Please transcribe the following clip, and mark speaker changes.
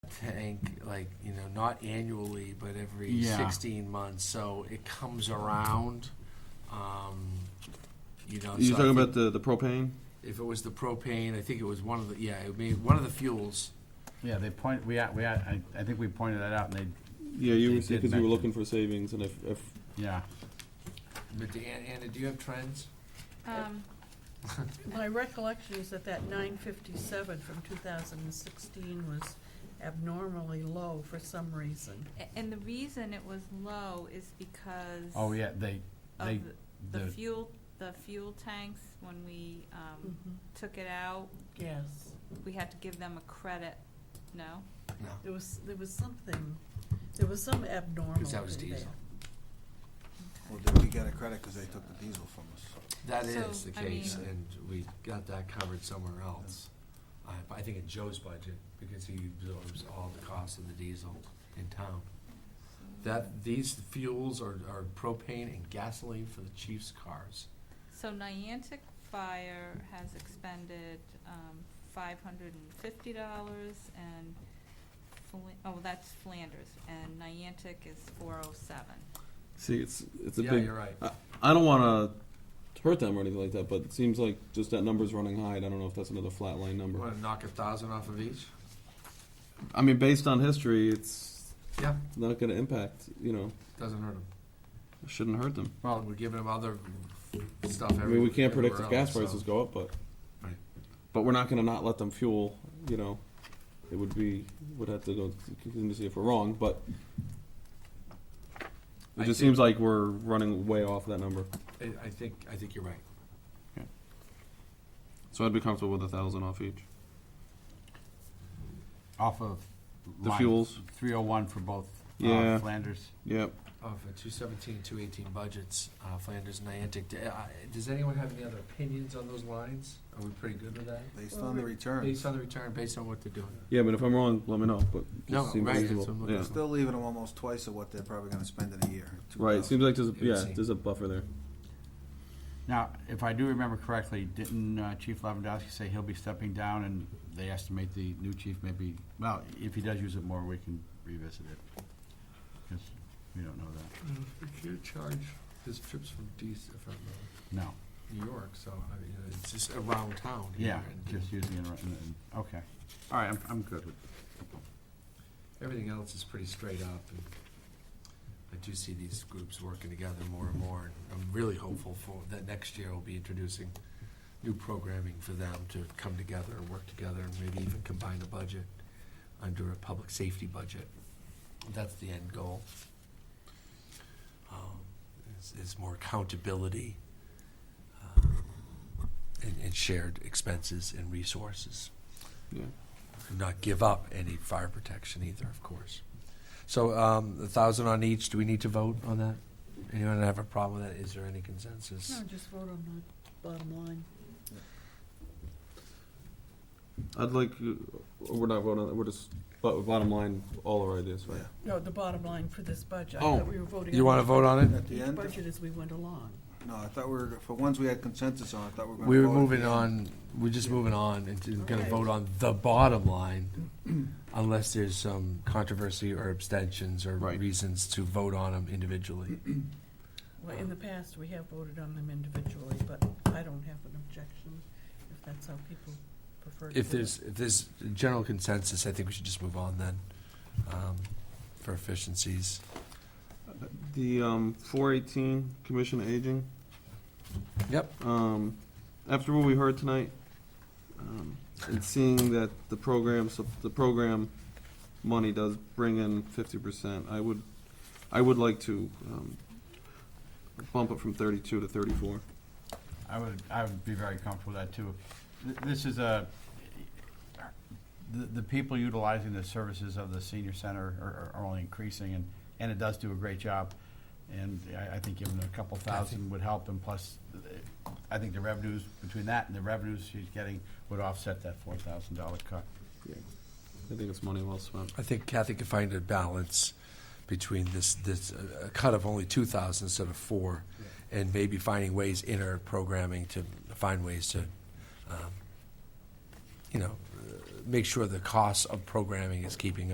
Speaker 1: think, like, you know, not annually, but every
Speaker 2: Yeah.
Speaker 1: sixteen months, so it comes around. Um, you know, so
Speaker 3: You're
Speaker 1: I
Speaker 3: talking
Speaker 1: think
Speaker 3: about the, the propane?
Speaker 1: if it was the propane, I think it was one of the yeah, it may one of the fuels.
Speaker 2: Yeah, they point, we, a- we, a- I, I think we pointed that out, and they,
Speaker 3: Yeah, you
Speaker 2: They
Speaker 3: were,
Speaker 2: did
Speaker 3: because you were
Speaker 2: mention-
Speaker 3: looking for savings, and if, if,
Speaker 2: yeah.
Speaker 1: But do- Anna, Anna, do you have trends?
Speaker 4: Um,
Speaker 5: My recollection is that that nine fifty-seven from two thousand and sixteen was abnormally low for some reason.
Speaker 4: a- And the reason it was low is because
Speaker 2: Oh, yeah, they, they,
Speaker 4: of the- the
Speaker 2: the,
Speaker 4: fuel, the fuel tanks, when we um,
Speaker 5: Mhm.
Speaker 4: took it out,
Speaker 5: Yes,
Speaker 4: we had to give them a credit, no?
Speaker 1: No.
Speaker 5: there was, there was something, there was some abnormal
Speaker 1: that was
Speaker 5: in
Speaker 1: diesel.
Speaker 5: there.
Speaker 6: Well, did we get a credit because they took the diesel from us?
Speaker 1: That
Speaker 4: So,
Speaker 1: is the
Speaker 4: I
Speaker 1: case,
Speaker 6: mean-
Speaker 1: and we got that covered somewhere else. I, I think in Joe's budget, because he absorbs all the costs of the diesel in town. That, these fuels are, are propane and gasoline for the chief's cars.
Speaker 4: So Niantic Fire has expended um, $550, and, Fla- oh, that's Flanders, and Niantic is 407.
Speaker 3: see, it's, it's a
Speaker 1: Yeah,
Speaker 3: big,
Speaker 1: you're right.
Speaker 3: I don't wanna hurt them or anything like that, but it seems like just that number's running high, and I don't know if that's another flat line number.
Speaker 1: Want to knock a thousand off of each?
Speaker 3: I mean, based on history, it's
Speaker 1: Yeah,
Speaker 3: not gonna impact, you know,
Speaker 1: doesn't hurt them.
Speaker 3: shouldn't hurt them.
Speaker 1: Well, we're giving them other stuff
Speaker 3: I
Speaker 1: every-
Speaker 3: mean, we can't predict if
Speaker 1: everywhere
Speaker 3: gas
Speaker 1: else, so-
Speaker 3: prices go up, but,
Speaker 1: Right.
Speaker 3: but we're not gonna not let them fuel, you know. It would be, would have to go to contingency if we're wrong, but
Speaker 1: I
Speaker 3: it just
Speaker 1: think-
Speaker 3: seems like we're running way off that number.
Speaker 1: I, I think, I think you're right.
Speaker 3: So I'd be comfortable with a thousand off each.
Speaker 2: off of.
Speaker 3: The fuels.
Speaker 2: Three oh one for both uh,
Speaker 3: Yeah.
Speaker 2: Flanders.
Speaker 3: Yep.
Speaker 1: Oh, for two seventeen, two eighteen budgets, uh, Flanders, Niantic, d- uh, does anyone have any other opinions on those lines? Are we pretty good with that?
Speaker 6: Based on the return,
Speaker 1: Based on the return, based on what they're doing?
Speaker 3: Yeah, but if I'm wrong, let me know. But it
Speaker 1: No,
Speaker 3: seems
Speaker 1: right,
Speaker 3: reasonable.
Speaker 1: that's what I'm looking
Speaker 3: yeah.
Speaker 1: for.
Speaker 6: still leaving them almost twice of what they're probably gonna spend in a year.
Speaker 3: Right. It seems like there's a,
Speaker 1: It would
Speaker 3: yeah,
Speaker 1: seem.
Speaker 3: there's a buffer there.
Speaker 2: Now, if I do remember correctly, didn't uh, Chief Lavandowski say he'll be stepping down, and they estimate the new chief maybe, well, if he does use it more, we can revisit it. Because we don't know that,
Speaker 1: Uh, We can't charge his trips from DC, from uh,
Speaker 2: no,
Speaker 1: New York, so, I mean, uh, it's just around town here.
Speaker 2: yeah,
Speaker 1: and
Speaker 2: just using it, right- and- and- okay, all right, I'm, I'm good with
Speaker 1: Everything else is pretty straight up, and I do see these groups working together more and more, and I'm really hopeful for, that next year we'll be introducing new programming for them to come together and work together, and maybe even combine a budget under a public safety budget. That's the end goal. Um, Is, is more accountability, uh, and, and shared expenses and resources
Speaker 3: Yeah.
Speaker 1: and not give up any fire protection either, of course. So um, a thousand on each. Do we need to vote on that? Anyone have a problem with that? Is there any consensus?
Speaker 5: No, just vote on the bottom line.
Speaker 3: I'd like. uh, We're not voting. on that, We're just. But bottom line, all our ideas, right?
Speaker 5: No, the bottom line for this budget. I
Speaker 3: Oh,
Speaker 5: thought we were voting
Speaker 1: You
Speaker 5: on
Speaker 1: want to vote on it?
Speaker 6: At the
Speaker 5: Each
Speaker 6: end,
Speaker 5: budget as we went along.
Speaker 6: no, I thought we were, for ones we had consensus on, I thought we were gonna.
Speaker 1: We were
Speaker 6: vote at the
Speaker 1: moving
Speaker 6: end.
Speaker 1: on. We're just moving on and just going to
Speaker 5: Okay.
Speaker 1: vote on the bottom line, unless there's some controversy or abstentions or
Speaker 3: Right.
Speaker 1: reasons to vote on them individually.
Speaker 5: Well, in the past, we have voted on them individually, but I don't have an objection if that's how people prefer to do it.
Speaker 1: If there's if there's general consensus, I think we should just move on then, um, for efficiencies.
Speaker 3: The um, 418 Commission on Aging.
Speaker 1: Yep.
Speaker 3: Um, after what we heard tonight, um, and seeing that the program, sup- the program money does bring in fifty percent, I would, I would like to, um, bump it from thirty-two to thirty-four.
Speaker 2: I would, I would be very comfortable with that, too. Th- This is a, the, the people utilizing the services of the senior center are, are only increasing, and, and it does do a great job. And I, I think giving them a couple thousand would help, and plus, uh, I think the revenues, between that and the revenues she's getting, would offset that four thousand dollar cut.
Speaker 3: I think it's money well spent.
Speaker 1: I think Kathy could find a balance between this, this, uh, a cut of only two thousand instead of four, and maybe finding ways in her programming to find ways to, um, you know, uh, make sure the cost of programming is keeping